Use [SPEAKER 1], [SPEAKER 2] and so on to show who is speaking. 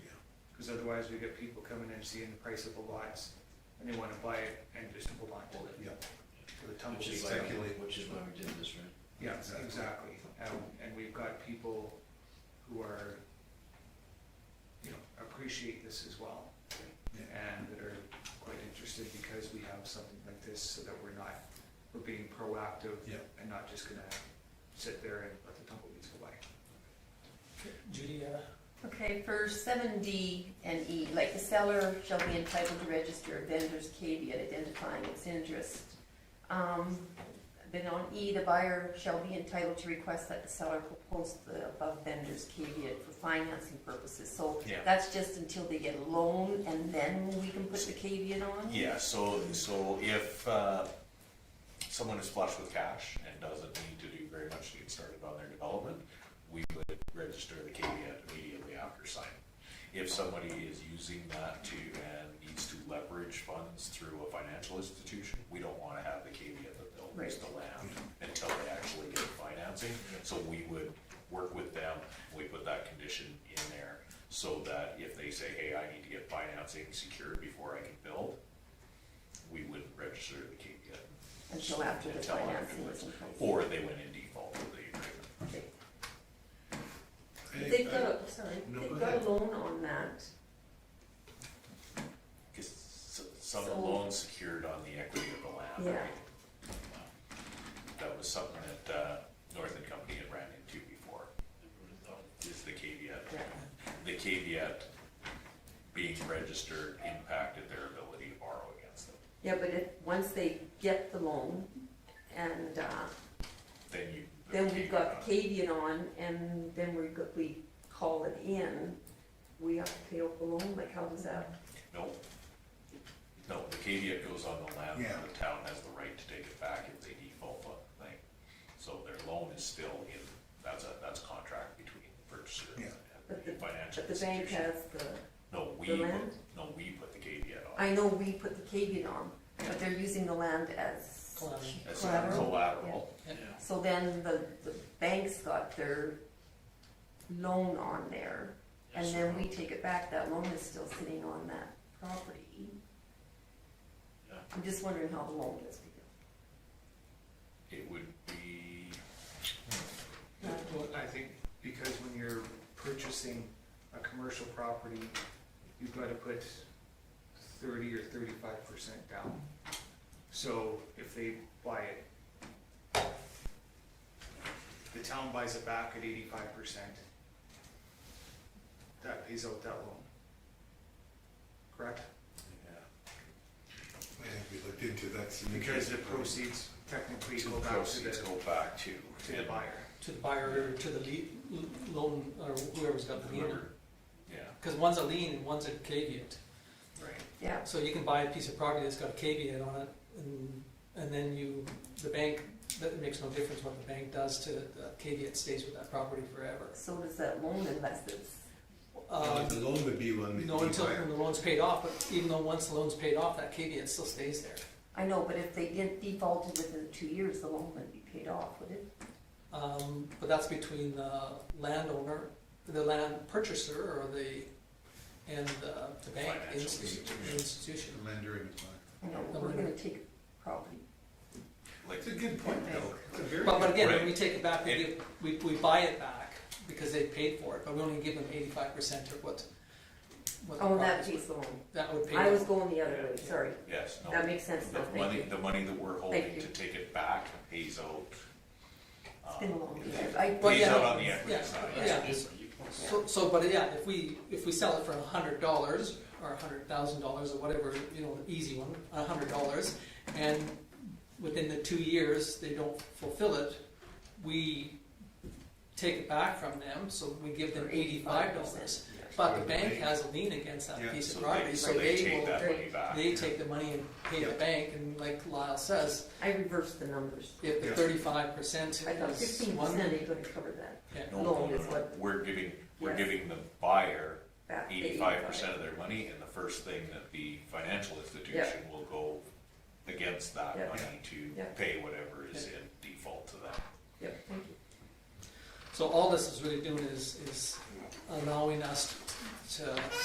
[SPEAKER 1] Because otherwise we get people coming in seeing the price of the lots and they wanna buy it and just hold it.
[SPEAKER 2] Yeah.
[SPEAKER 1] For the
[SPEAKER 2] Which
[SPEAKER 1] tumbleweed.
[SPEAKER 2] is
[SPEAKER 1] cycle.
[SPEAKER 2] like, which is why we did this, right?
[SPEAKER 1] Yeah, exactly. And, and we've got people who are, you know, appreciate this as well.
[SPEAKER 2] Yeah.
[SPEAKER 1] And that are quite interested because we have something like this so that we're not, we're being proactive.
[SPEAKER 2] Yeah.
[SPEAKER 1] And not just gonna sit there and let the tumbleweeds go by.
[SPEAKER 3] Judy, uh,
[SPEAKER 4] Okay, for seven D and E, like the seller shall be entitled to register a vendor's caveat identifying its interest. Um, then on E, the buyer shall be entitled to request that the seller propose the above vendor's caveat for financing purposes. So
[SPEAKER 5] Yeah.
[SPEAKER 4] that's just until they get a loan and then we can put the caveat on?
[SPEAKER 5] Yeah, so, so if, uh, someone is flush with cash and doesn't need to do very much to get started on their development, we would register the caveat immediately after signing. If somebody is using that to, and needs to leverage funds through a financial institution, we don't wanna have the caveat that they'll lease the land until they actually get financing, so we would work with them, we put that condition in there, so that if they say, hey, I need to get financing secured before I can build, we wouldn't register the caveat.
[SPEAKER 4] Until after the
[SPEAKER 5] Until
[SPEAKER 4] financing
[SPEAKER 5] afterwards.
[SPEAKER 4] is in place?
[SPEAKER 5] Or they went in default with the agreement.
[SPEAKER 4] Okay.
[SPEAKER 2] I-
[SPEAKER 4] They've
[SPEAKER 2] I-
[SPEAKER 4] got, a- sorry,
[SPEAKER 2] No, go
[SPEAKER 4] they've got
[SPEAKER 2] ahead.
[SPEAKER 4] a loan on that.
[SPEAKER 5] Because some of the
[SPEAKER 4] So-
[SPEAKER 5] loans secured on the equity of the land,
[SPEAKER 4] Yeah.
[SPEAKER 5] right? Uh, That was something that uh, Northern Company had ran into before, is the caveat.
[SPEAKER 4] Yeah.
[SPEAKER 5] The caveat being registered impacted their ability to borrow against them.
[SPEAKER 4] Yeah, but if, once they get the loan and, uh,
[SPEAKER 5] Then you. the
[SPEAKER 4] then we've got
[SPEAKER 5] caveat.
[SPEAKER 4] the caveat on, and then we, go- we call it in, we have to pay off the loan, like how does that?
[SPEAKER 5] No. No, the caveat goes on the land,
[SPEAKER 2] Yeah.
[SPEAKER 5] the town has the right to take it back if they default on the thing. So their loan is still in, that's a, that's a contract between the purchaser
[SPEAKER 2] Yeah.
[SPEAKER 5] and
[SPEAKER 4] But
[SPEAKER 5] the
[SPEAKER 4] the,
[SPEAKER 5] financial
[SPEAKER 4] but the bank
[SPEAKER 5] institution.
[SPEAKER 4] has the,
[SPEAKER 5] No, we,
[SPEAKER 4] the
[SPEAKER 5] put-
[SPEAKER 4] land?
[SPEAKER 5] no, we put the caveat on.
[SPEAKER 4] I know we put the caveat on, but they're using the land as
[SPEAKER 3] Collateral.
[SPEAKER 5] As
[SPEAKER 4] collateral.
[SPEAKER 5] collateral,
[SPEAKER 4] So then the, the bank's got their loan on there, and then we take it back, that loan is still sitting on that property.
[SPEAKER 2] Yeah.
[SPEAKER 4] I'm just wondering how the loan gets figured.
[SPEAKER 5] it would be,
[SPEAKER 1] Well, I think because when you're purchasing a commercial property, you've gotta put thirty or thirty-five percent down. So if they buy it, the town buys it back at eighty-five percent, that pays out that loan. Correct?
[SPEAKER 2] I think we looked into that. some-
[SPEAKER 1] Because the proceeds technically
[SPEAKER 5] two
[SPEAKER 1] go back to the,
[SPEAKER 5] proceeds go back to.
[SPEAKER 1] to the buyer.
[SPEAKER 3] to the buyer, to the lea- loan, or whoever's got the lien.
[SPEAKER 5] Whoever, yeah,
[SPEAKER 3] Because one's a lien and one's a caveat.
[SPEAKER 5] right.
[SPEAKER 4] Yeah,
[SPEAKER 3] So you can buy a piece of property that's got a caveat on it, and, and then you, the bank, that makes no difference what the bank does to, it. the caveat stays with that property forever.
[SPEAKER 4] so does that loan unless it's,
[SPEAKER 3] Uh,
[SPEAKER 2] Uh, The loan would be when we.
[SPEAKER 3] No, until when the loan's paid off, but even though once the loan's paid off, that caveat still stays there.
[SPEAKER 4] I know, but if they didn't defaulted within two years, the loan wouldn't be paid off, would it?
[SPEAKER 3] Um, But that's between the landowner, the land purchaser, or the, and uh, the bank
[SPEAKER 5] Financial
[SPEAKER 3] insti-
[SPEAKER 2] institution.
[SPEAKER 3] institution.
[SPEAKER 2] Lender and the buyer.
[SPEAKER 4] You know, we're gonna take property.
[SPEAKER 5] Like,
[SPEAKER 2] It's a good point, though. It's a very
[SPEAKER 3] But but
[SPEAKER 2] good
[SPEAKER 3] again, when
[SPEAKER 5] Right.
[SPEAKER 3] we take it back, we
[SPEAKER 5] It-
[SPEAKER 3] give, we, we buy it back, because they paid for it, but we only give them eighty-five percent of what, what the
[SPEAKER 4] Oh, that
[SPEAKER 3] property
[SPEAKER 4] pays
[SPEAKER 3] was.
[SPEAKER 4] the loan.
[SPEAKER 3] That would pay.
[SPEAKER 4] I
[SPEAKER 3] off.
[SPEAKER 4] was going the other way, sorry.
[SPEAKER 5] yes, no.
[SPEAKER 4] That makes sense
[SPEAKER 5] The
[SPEAKER 4] now, thank
[SPEAKER 5] money,
[SPEAKER 4] you.
[SPEAKER 5] the money that we're holding
[SPEAKER 4] you.
[SPEAKER 5] to take it back pays out.
[SPEAKER 4] It's been a long
[SPEAKER 5] um,
[SPEAKER 4] year. I-
[SPEAKER 3] Well,
[SPEAKER 5] Pays
[SPEAKER 3] yeah.
[SPEAKER 5] out on the equity
[SPEAKER 3] Yeah,
[SPEAKER 5] side.
[SPEAKER 3] yeah. So, so, but yeah, if we, if we sell it for a hundred dollars, or a hundred thousand dollars, or whatever, you know, the easy one, a hundred dollars, and within the two years, they don't fulfill it, we take it back from them, so we give them
[SPEAKER 4] For
[SPEAKER 3] eighty-five
[SPEAKER 4] 85%.
[SPEAKER 3] dollars. But the
[SPEAKER 2] Right.
[SPEAKER 3] bank has a lien against
[SPEAKER 2] Yeah,
[SPEAKER 3] that piece
[SPEAKER 5] So
[SPEAKER 3] of
[SPEAKER 5] they-
[SPEAKER 3] property, so
[SPEAKER 5] they
[SPEAKER 3] they
[SPEAKER 5] take
[SPEAKER 3] will,
[SPEAKER 5] that money back.
[SPEAKER 3] they take the money and pay the
[SPEAKER 2] Yeah.
[SPEAKER 3] bank, and like Lyle says,
[SPEAKER 4] I reversed the numbers.
[SPEAKER 3] if the
[SPEAKER 2] Yeah.
[SPEAKER 3] thirty-five percent
[SPEAKER 4] I thought
[SPEAKER 3] is
[SPEAKER 4] fifteen
[SPEAKER 3] one,
[SPEAKER 4] percent ain't gonna cover that
[SPEAKER 3] yeah,
[SPEAKER 5] No,
[SPEAKER 4] loan
[SPEAKER 5] no, no,
[SPEAKER 4] is
[SPEAKER 5] no.
[SPEAKER 4] what-
[SPEAKER 5] We're giving, we're
[SPEAKER 4] Yes.
[SPEAKER 5] giving the buyer
[SPEAKER 4] back. to
[SPEAKER 5] eighty-five percent of their money, and the first thing that the financial institution will go against that
[SPEAKER 4] Yeah.
[SPEAKER 5] money to
[SPEAKER 4] Yeah.
[SPEAKER 5] pay whatever is in default to them.
[SPEAKER 4] Yep, thank you.
[SPEAKER 3] So all this is really doing is, is allowing us to